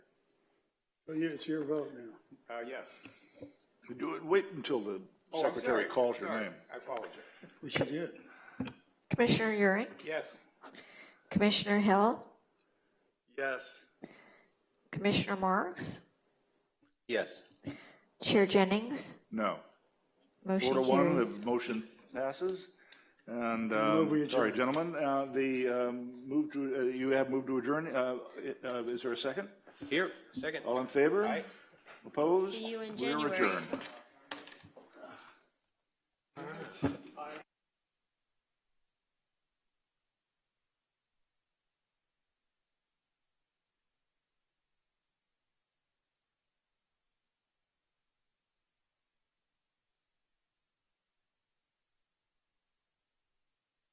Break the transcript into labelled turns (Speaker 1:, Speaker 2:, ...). Speaker 1: So you- it's your vote now.
Speaker 2: Uh, yes.
Speaker 3: Do it, wait until the
Speaker 2: Oh, I'm
Speaker 3: secretary
Speaker 2: sorry.
Speaker 3: calls your
Speaker 2: Sorry.
Speaker 3: name.
Speaker 2: I apologize.
Speaker 1: Which you did.
Speaker 4: Commissioner Euring,
Speaker 2: Yes.
Speaker 4: Commissioner Hill,
Speaker 2: Yes.
Speaker 4: Commissioner Marks,
Speaker 5: Yes.
Speaker 4: Chair Jennings,
Speaker 3: No. Four to
Speaker 4: motion
Speaker 3: one,
Speaker 4: carries.
Speaker 3: the motion passes. And,
Speaker 1: move we
Speaker 3: um,
Speaker 1: adjourn.
Speaker 3: sorry, gentlemen, uh, the, um, move to, uh, you have moved to adjourn. Uh, i- uh, Is there a second?
Speaker 5: Here, second.
Speaker 3: All in favor? Opposed?
Speaker 6: See you in
Speaker 3: We're
Speaker 6: January.
Speaker 3: adjourned.
Speaker 1: All right.